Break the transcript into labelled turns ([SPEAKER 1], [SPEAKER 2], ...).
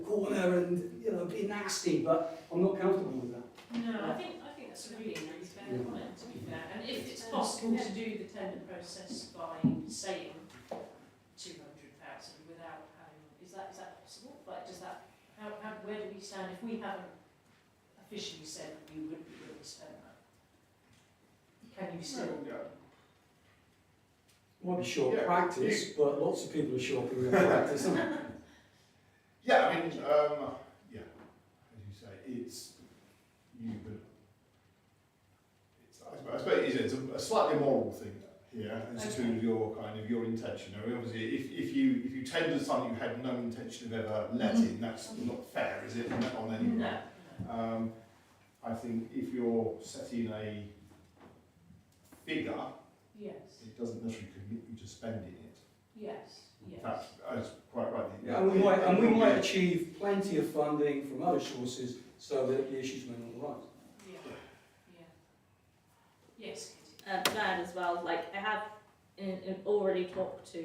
[SPEAKER 1] corner and, you know, be nasty, but I'm not comfortable with that.
[SPEAKER 2] No, I think, I think that's a really nice fair
[SPEAKER 1] Yeah.
[SPEAKER 2] comment, to be fair, and if it's possible to do the tender process by saying two hundred thousand without having, is that, is that possible? Like, does that, how, how, where do we stand if we haven't officially said that we would be willing to spend that? Can you still?
[SPEAKER 1] Might be short
[SPEAKER 3] Yeah,
[SPEAKER 1] practice, but lots of people are short in their practice, aren't they?
[SPEAKER 3] Yeah, I mean, um, yeah, as you say, it's, you could, it's, I suppose- I suppose it is, it's a- a slightly moral thing here as to
[SPEAKER 2] Okay.
[SPEAKER 3] your kind of, your intention. I mean, obviously, if, if you, if you tendered something you had no intention of ever letting,
[SPEAKER 2] Mm-hmm.
[SPEAKER 3] that's not fair, is it, on on anyone?
[SPEAKER 2] No,
[SPEAKER 3] Um, I think if you're setting a figure,
[SPEAKER 2] yes,
[SPEAKER 3] it doesn't necessarily commit you to spending it.
[SPEAKER 2] yes,
[SPEAKER 3] In
[SPEAKER 2] yes.
[SPEAKER 3] fact, that's quite right.
[SPEAKER 1] And we might, and we might achieve plenty of funding from other sources so that the issues may not arise.
[SPEAKER 2] Yeah, yeah. Yes, Katie.
[SPEAKER 4] uh, um, that as well. Like I have in, in uh, already talked to